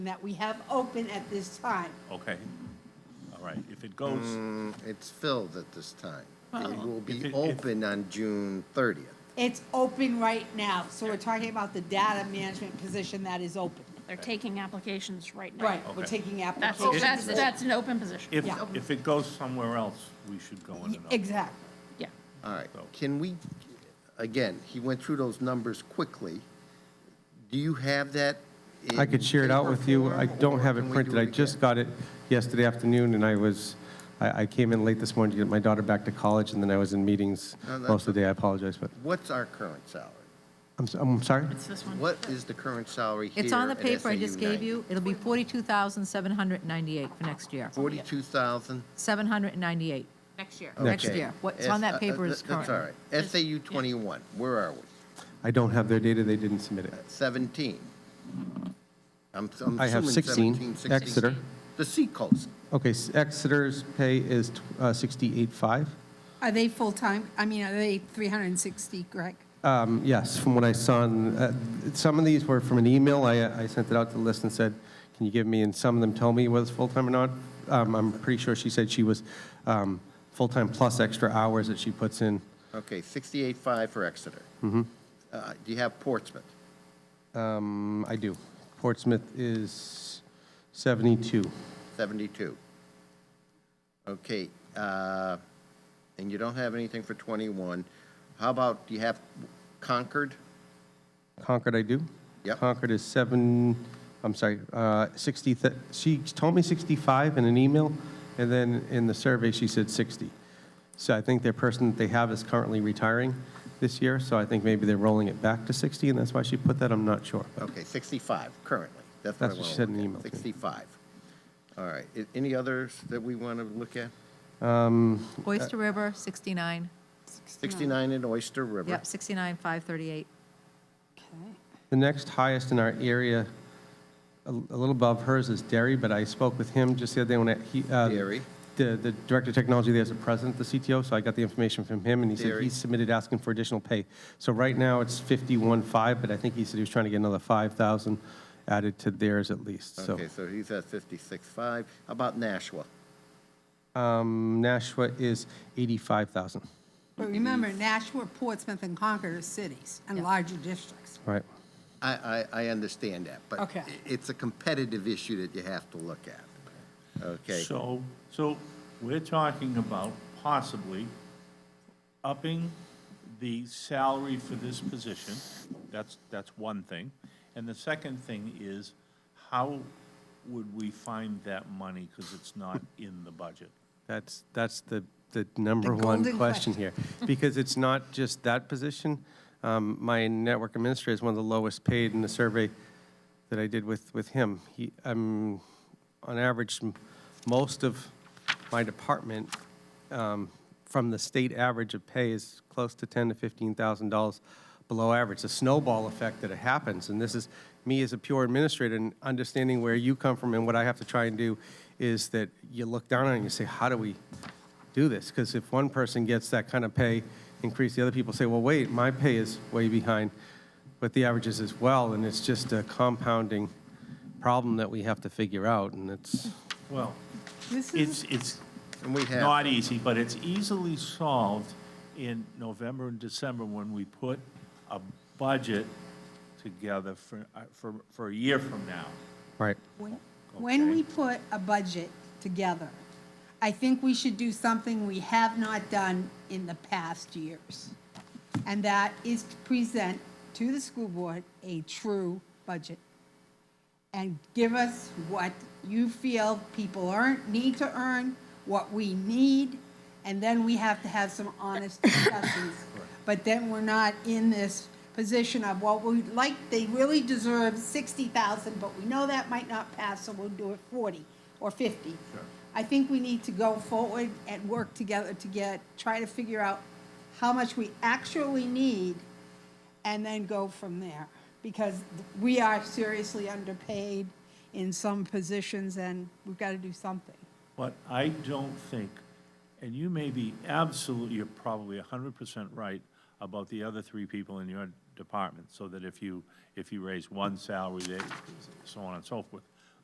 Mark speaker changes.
Speaker 1: that we have open at this time.
Speaker 2: Okay, all right, if it goes,
Speaker 3: It's filled at this time. It will
Speaker 2: If
Speaker 3: be
Speaker 2: it- if-
Speaker 3: open on June 30th.
Speaker 1: It's open right now, so we're talking about the data management position that is open.
Speaker 4: They're taking applications right now.
Speaker 1: Right, we're
Speaker 2: Okay.
Speaker 1: taking
Speaker 4: That's,
Speaker 1: applications.
Speaker 4: that's, that's an open position.
Speaker 2: if,
Speaker 1: Yeah.
Speaker 2: if it goes somewhere else, we should go in another.
Speaker 1: Exactly.
Speaker 4: Yeah.
Speaker 3: All right,
Speaker 2: So-
Speaker 3: can we, again, he went through those numbers quickly. Do you have that?
Speaker 5: I
Speaker 3: in
Speaker 5: could share it out
Speaker 3: paper
Speaker 5: with you. I
Speaker 3: form,
Speaker 5: don't
Speaker 3: or
Speaker 5: have
Speaker 3: can
Speaker 5: it
Speaker 3: we
Speaker 5: printed.
Speaker 3: do
Speaker 5: I just
Speaker 3: again?
Speaker 5: got it yesterday afternoon, and I was, I, I came in late this morning to get my daughter back to college, and then I was in meetings
Speaker 3: No, that's
Speaker 5: most of the day. I apologize, but,
Speaker 3: What's our current salary?
Speaker 5: I'm, so- I'm sorry?
Speaker 4: It's this one.
Speaker 3: What is the current salary here?
Speaker 6: It's on the
Speaker 3: at
Speaker 6: paper I
Speaker 3: SAU
Speaker 6: just gave
Speaker 3: 90?
Speaker 6: you. It'll be 42,798 for next year.
Speaker 3: 42,000?
Speaker 6: 798.
Speaker 4: Next year.
Speaker 6: Next
Speaker 3: Okay.
Speaker 6: year. What's on
Speaker 3: S-
Speaker 6: that
Speaker 3: uh,
Speaker 6: paper
Speaker 3: uh,
Speaker 6: is
Speaker 3: That's all right.
Speaker 6: current.
Speaker 3: SAU 21, where are we?
Speaker 5: I don't have their data. They didn't submit it.
Speaker 3: 17. I'm I'm
Speaker 5: I have
Speaker 3: assuming
Speaker 5: 16,
Speaker 3: 17, 16.
Speaker 5: Exeter.
Speaker 3: The Seacoast.
Speaker 5: Okay, s- Exeter's pay is tw- uh, 68.5.
Speaker 1: Are they full-time? I mean, are they 360, Greg?
Speaker 5: Um, Yes, from what I saw, in- uh, some of these were from an email. I, I sent it out to the list and said, can you give me, and some of them told me whether it's full-time or not. Um, I'm pretty sure she said she was um, full-time plus extra hours that she puts in.
Speaker 3: Okay, 68.5 for Exeter.
Speaker 5: Mm-hmm.
Speaker 3: Uh, Do you have Portsmouth?
Speaker 5: Um, I do. Portsmouth is 72.
Speaker 3: 72. Okay, uh, and you don't have anything for 21. How about, do you have Concord?
Speaker 5: Concord, I do?
Speaker 3: Yep.
Speaker 5: Concord is seven, I'm sorry, uh, 60, th- she told me 65 in an email, and then in the survey, she said 60. So I think their person that they have is currently retiring this year, so I think maybe they're rolling it back to 60, and that's why she put that, I'm not sure. but-
Speaker 3: Okay, 65 currently. That's what I
Speaker 5: That's
Speaker 3: want
Speaker 5: what
Speaker 3: to
Speaker 5: she said in
Speaker 3: look
Speaker 5: the
Speaker 3: at.
Speaker 5: email to me.
Speaker 3: 65. All right, A- any others that we want to look at? Uh,
Speaker 6: Oyster River, 69.
Speaker 3: 69 in Oyster River.
Speaker 6: Yep, 69, 538.
Speaker 5: The next highest in our area, a a little above hers, is Derry, but I spoke with him just the other day when I- he... uh,
Speaker 3: Derry.
Speaker 5: The the Director of Technology there is the president of the CTO, so I got the information from him, and he said
Speaker 3: Derry.
Speaker 5: he submitted asking for additional pay. So right now, it's 51.5, but I think he said he was trying to get another 5,000 added to theirs at least, so...
Speaker 3: Okay, so he's at 56.5. How about Nashua?
Speaker 5: um, Nashua is 85,000,
Speaker 7: But remember, Nashua, Portsmouth, and Concord are cities and larger districts.
Speaker 5: right?
Speaker 3: I, I, I understand that, but
Speaker 7: Okay.
Speaker 3: i- it's a competitive issue that you have to look at. Okay,
Speaker 2: So, so we're talking about possibly upping the salary for this position. That's, that's one thing. And the second thing is, how would we find that money? Because it's not in the budget.
Speaker 5: That's, that's the, the number one
Speaker 7: golden question.
Speaker 5: question here. Because it's not just that position. Um, My network administrator is one of the lowest paid in the survey that I did with, with him. He, um, on average, m- most of my department, um, from the state average of pay is close to ten to fifteen thousand dollars below average. The snowball effect that it happens, and this is me as a pure administrator and understanding where you come from and what I have to try and do is that you look down on it and you say, how do we do this? Because if one person gets that kind of pay increase, the other people say, well, wait, my pay is way behind with the averages as well, and it's just a compounding problem that we have to figure out, and it's,
Speaker 2: Well,
Speaker 7: This
Speaker 2: it's, it's
Speaker 3: and we have.
Speaker 2: not easy, but it's easily solved in November and December when we put a budget together for, uh, for, for a year from now.
Speaker 5: right.
Speaker 7: When- When
Speaker 2: Okay.
Speaker 7: we put a budget together, I think we should do something we have not done in the past years. And that is to present to the school board a true budget. And give us what you feel people earn, need to earn, what we need, and then we have to have some honest discussions. But then we're not in this position of, well, we like, they really deserve sixty thousand, but we know that might not pass, so we'll do it forty or fifty. I think we need to go forward and work together to get, try to figure out how much we actually need and then go from there. Because we are seriously underpaid in some positions and we've got to do something.
Speaker 2: But I don't think, and you may be absolutely, you're probably hundred percent right about the other three people in your department, so that if you, if you raise one salary, they, so on and so forth.